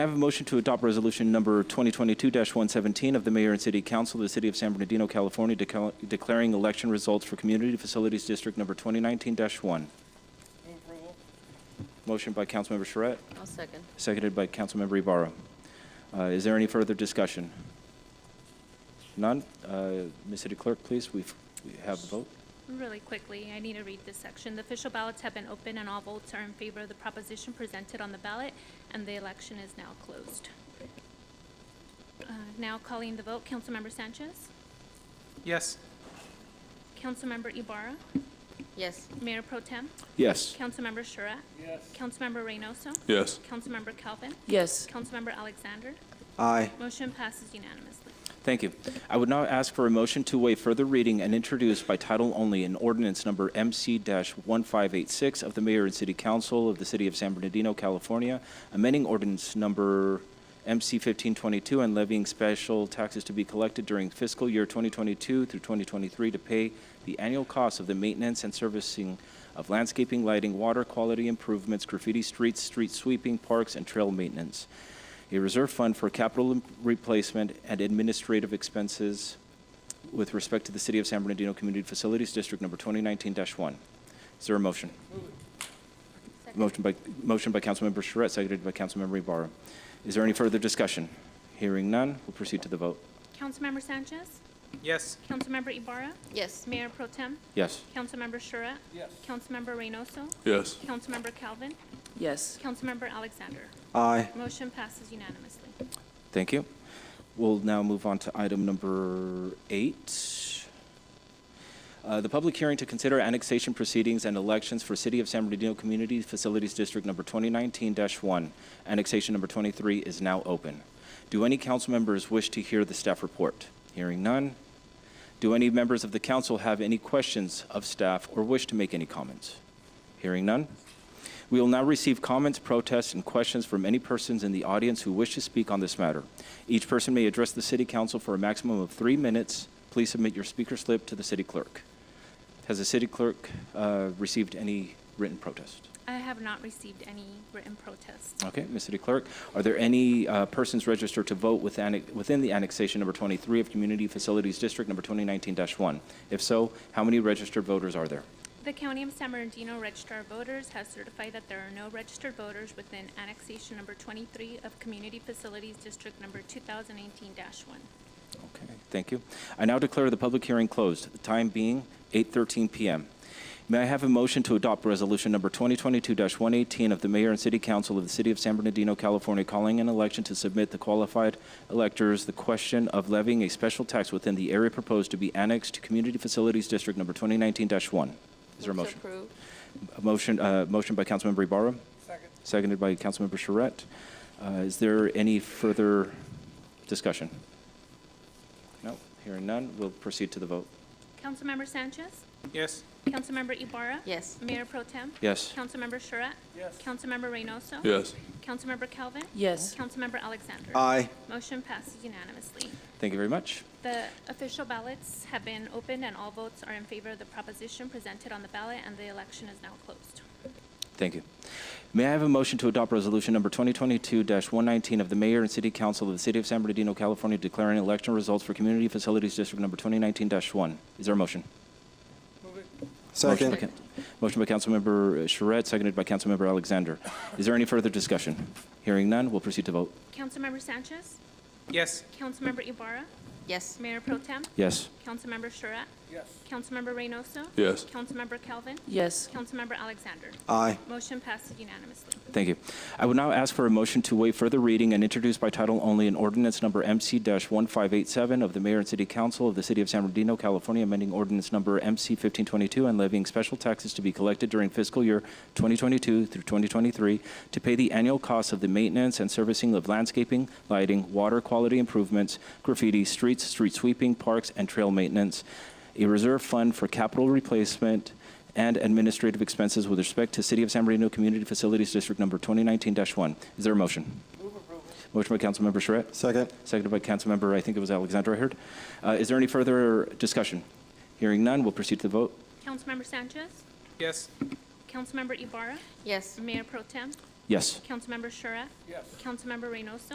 I have a motion to adopt resolution number 2022-117 of the mayor and city council of the city of San Bernardino, California, decal- declaring election results for Community Facilities District number 2019-1. Move approval. Motion by Councilmember Charette, I'll second. seconded by Councilmember Ibarra. Uh, Is there any further discussion? None? Uh, Ms. City Clerk, please, we've- we have the vote. Really quickly, I need to read this section. The official ballots have been open and all votes are in favor of the proposition presented on the ballot, and the election is now closed. Uh, Now calling the vote, Councilmember Sanchez, Yes. Councilmember Ibarra, Yes. Mayor Pro Tem, Yes. Councilmember Charette, Yes. Councilmember Reynoso, Yes. Councilmember Calvin, Yes. Councilmember Alexander. Aye. Motion passes unanimously. Thank you. I would now ask for a motion to waive further reading and introduce by title only an ordinance number MC-1586 of the Mayor and City Council of the City of San Bernardino, California, amending ordinance number MC-1522 and levying special taxes to be collected during fiscal year 2022 through 2023 to pay the annual cost of the maintenance and servicing of landscaping, lighting, water quality improvements, graffiti streets, street sweeping, parks, and trail maintenance a reserve fund for capital im- replacement and administrative expenses with respect to the City of San Bernardino Community Facilities District Number 2019-1. Is there a motion? Motion by, motion by Councilmember Charette, seconded by Councilmember Ibarra. Is there any further discussion? Hearing none, we'll proceed to the vote. Councilmember Sanchez, Yes. Councilmember Ibarra, Yes. Mayor Pro Tem, Yes. Councilmember Charette, Yes. Councilmember Reynoso, Yes. Councilmember Calvin, Yes. Councilmember Alexander. Aye. Motion passes unanimously. Thank you. We'll now move on to item number eight. Uh, The public hearing to consider annexation proceedings and elections for City of San Bernardino Community Facilities District Number 2019-1. Annexation number 23 is now open. Do any council members wish to hear the staff report? Hearing none. Do any members of the council have any questions of staff or wish to make any comments? Hearing none. We will now receive comments, protests, and questions from any persons in the audience who wish to speak on this matter. Each person may address the City Council for a maximum of three minutes. Please submit your speaker slip to the City Clerk. Has the City Clerk uh, received any written protest? I have not received any written protests. Okay, Ms. City Clerk, are there any uh, persons registered to vote with annex- within the annexation number 23 of Community Facilities District number 2019-1? If so, how many registered voters are there? The County of San Bernardino Registrar of Voters has certified that there are no registered voters within annexation number 23 of Community Facilities District number 2018-1. Okay, thank you. I now declare the public hearing closed, the time being 8:13 PM. May I have a motion to adopt Resolution Number 2022-118 of the Mayor and City Council of the City of San Bernardino, California, calling an election to submit the qualified electors the question of levying a special tax within the area proposed to be annexed to Community Facilities District Number 2019-1? Is there a motion? Approved. A motion, uh, motion by Councilmember Ibarra, Second. seconded by Councilmember Charette. Uh, Is there any further discussion? No, hearing none, we'll proceed to the vote. Councilmember Sanchez, Yes. Councilmember Ibarra. Yes. Mayor Pro Tem. Yes. Councilmember Charette. Yes. Councilmember Reynoso. Yes. Councilmember Calvin. Yes. Councilmember Alexander. Aye. Motion passes unanimously. Thank you very much. The official ballots have been opened and all votes are in favor of the proposition presented on the ballot and the election is now closed. Thank you. May I have a motion to adopt Resolution Number 2022-119 of the Mayor and City Council of the City of San Bernardino, California, declaring election results for Community Facilities District Number 2019-1? Is there a motion? Move it. Second. Motion by Coun- Motion by Councilmember Charette, seconded by Councilmember Alexander. Is there any further discussion? Hearing none, we'll proceed to vote. Councilmember Sanchez, Yes. Councilmember Ibarra, Yes. Mayor Pro Tem, Yes. Councilmember Charette, Yes. Councilmember Reynoso, Yes. Councilmember Calvin, Yes. Councilmember Alexander. Aye. Motion passes unanimously. Thank you. I would now ask for a motion to waive further reading and introduce by title only an ordinance number MC-1587 of the Mayor and City Council of the City of San Bernardino, California, amending ordinance number MC-1522 and levying special taxes to be collected during fiscal year 2022 through 2023 to pay the annual costs of the maintenance and servicing of landscaping, lighting, water quality improvements, graffiti, streets, street sweeping, parks, and trail maintenance, a reserve fund for capital replacement, and administrative expenses with respect to City of San Bernardino Community Facilities District Number 2019-1. Is there a motion? Move approval. Motion by Councilmember Charette, Second. seconded by Councilmember, I think it was Alexander I heard. Uh, Is there any further discussion? Hearing none, we'll proceed to the vote. Councilmember Sanchez, Yes. Councilmember Ibarra, Yes. Mayor Pro Tem, Yes. Councilmember Shura? Yes. Councilmember Reynoso?